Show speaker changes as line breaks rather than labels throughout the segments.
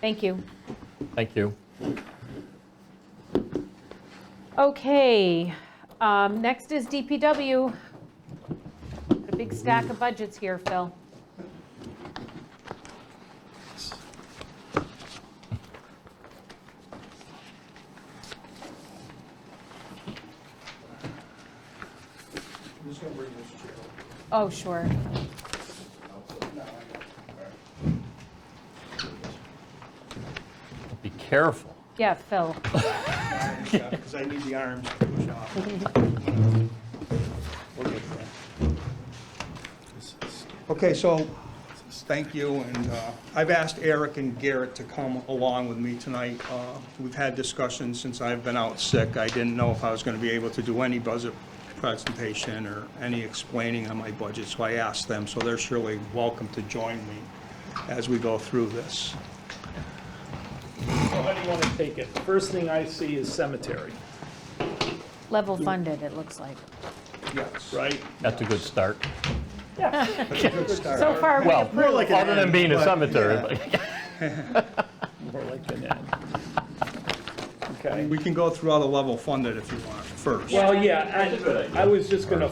Thank you.
Thank you.
Okay, um, next is DPW. Got A big stack of budgets here, Phil.
I'm just gonna bring this chair. over.
Oh, sure.
No, I got
Be careful.
Yeah, Phil.
it. Because I need the arms to push off. We'll get there. Okay, so, thank you, and uh, I've asked Eric and Garrett to come along with me tonight. Uh, We've had discussions since I've been out sick. I didn't know if I was gonna be able to do any budget presentation or any explaining on my budget, so I asked them, so they're surely welcome to join me as we go through this.
How do you want to take it? First thing I see is cemetery,
Level funded, it looks like.
Yes.
right?
That's a good start.
Good start.
So far, we
Well,
approve.
More like an
other than
end,
being a
but-
cemetery,
yeah.
but-
yeah, More like an end. Okay.
We can go through all the level funded if you want first.
Well, yeah, I, I was just gonna,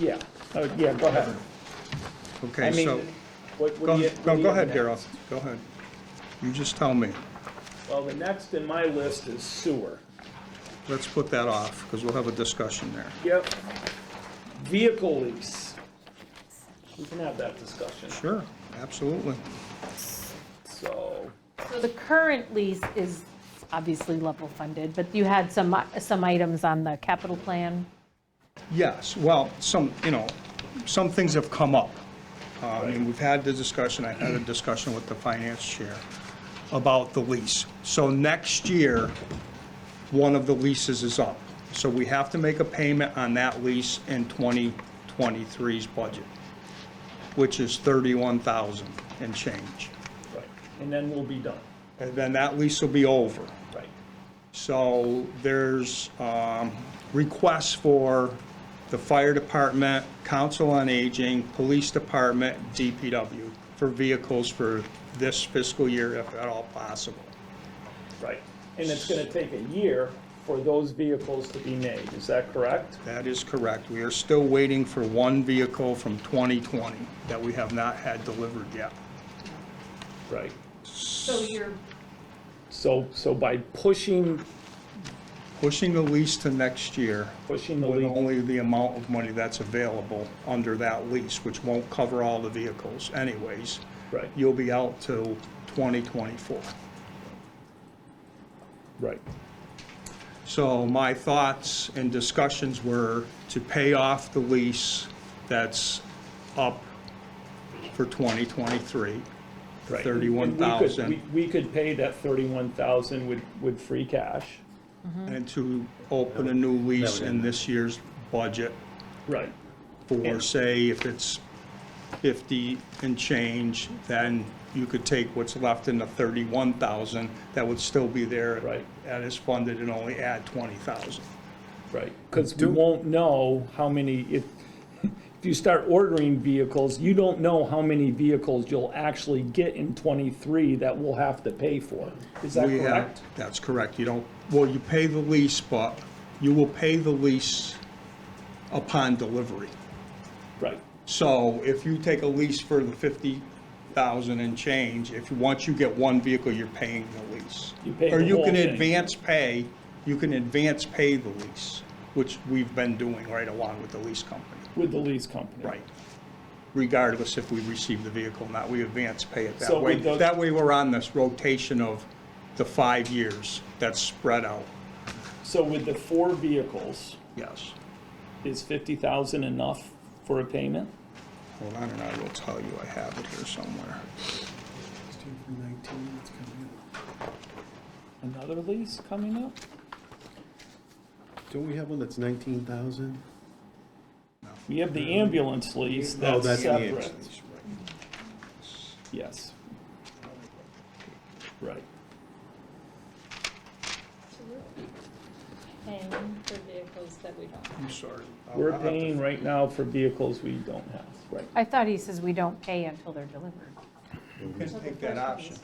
yeah, oh, yeah, go ahead. I
Okay,
mean,
so,
what, what
go,
do you? what
no, go
do you
ahead,
have
Darrell,
next?
go ahead. You just tell me.
Well, the next in my list is sewer.
Let's put that off, because we'll have a discussion there.
Yep. Vehicle lease. We can have that discussion,
Sure, absolutely.
so,
So the current lease is obviously level funded, but you had some, some items on the capital plan.
Yes, well, some, you know, some things have come up. Uh, I mean, we've had the discussion, I had a discussion with the finance chair about the lease. So next year, one of the leases is up. So we have to make a payment on that lease in 2023's budget, which is 31,000 and change.
right, and then we'll be done,
And then that lease will be over.
right?
So there's um, requests for the fire department, council on aging, police department, DPW for vehicles for this fiscal year, if at all possible.
Right, and it's gonna take a year for those vehicles to be made, is that correct?
That is correct. We are still waiting for one vehicle from 2020 that we have not had delivered yet.
Right.
So you're.
So, so by pushing,
Pushing the lease to next year
pushing the
with
lead,
only the amount of money that's available under that lease, which won't cover all the vehicles anyways.
right,
you'll be out till 2024.
right,
So my thoughts and discussions were to pay off the lease that's up for 2023, the
right.
31,000,
We could pay that thirty-one thousand with, with free cash.
and to open a new lease in this year's budget
Right.
for, say, if it's 50 and change, then you could take what's left in the 31,000 that would still be there.
Right.
That is funded and only add 20,000.
Right, because we won't know how many, if, if you start ordering vehicles, you don't know how many vehicles you'll actually get in twenty-three that we'll have to pay for. Is that
We have-
correct?
That's correct. You don't, well, you pay the lease, but you will pay the lease upon delivery.
Right,
So if you take a lease for the 50,000 and change, if, once you get one vehicle, you're paying the lease.
You pay
Or
the
you
whole
can
thing.
advance pay, you can advance pay the lease, which we've been doing right along with the lease company.
with the lease company.
Right. Regardless if we receive the vehicle or not, we advance pay it
So
that way.
with the-
That way, we're on this rotation of the five years that's spread out.
So with the four vehicles,
Yes.
is fifty thousand enough for a payment?
Hold on, and I will tell you, I have it here somewhere.
Another lease coming up?
Don't we have one that's nineteen thousand?
We have the ambulance lease,
Oh,
that's
that's the
separate.
ambulance,
Yes. Right,
paying for vehicles that we don't.
I'm sorry. I'll-
we're
I'll have to-
paying right now for vehicles we don't have, right?
I thought he says we don't pay until they're delivered.
You can take that option.